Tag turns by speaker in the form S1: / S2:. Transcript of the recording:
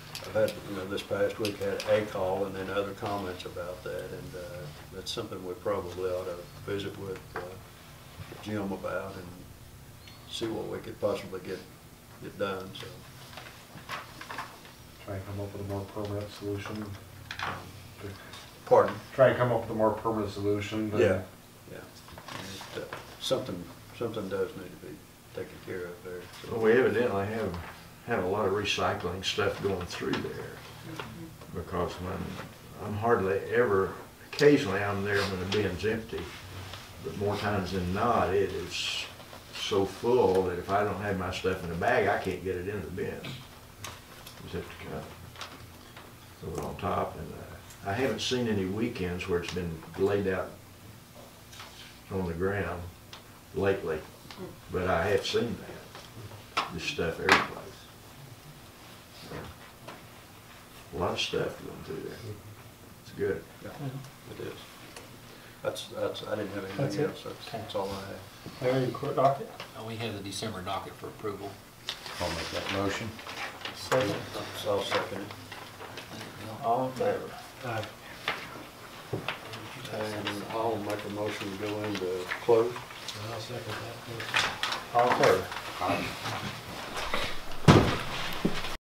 S1: had, you know, this past week had a call and then other comments about that, and uh, that's something we probably ought to visit with uh, Jim about and see what we could possibly get, get done, so.
S2: Try and come up with a more permanent solution. Um,
S1: Pardon?
S2: Try and come up with a more permanent solution. than-
S1: Yeah, yeah. And it, uh, Something, something does need to be taken care of there, so.
S3: Well, we Oh, evidently have, had a lot of recycling stuff going through there. Because when, I'm hardly ever, occasionally I'm there when the bin's empty. But more times than not, it is so full that if I don't have my stuff in a bag, I can't get it in the bin. Just have to kind of throw it on top. And uh, I haven't seen any weekends where it's been laid out on the ground lately. But I have seen that this stuff every place. A lot of stuff going through there. It's good.
S1: It is. That's, that's, I didn't have
S4: That's
S1: anything
S4: it?
S1: else, that's, that's all I have.
S4: Larry, the court docket?
S5: Uh, We have the December docket for approval.
S6: I'll make that motion.
S4: Second.
S1: So I'll second it.
S4: All in favor? Aye.
S1: And I'll make a motion to go into close.
S4: All in favor?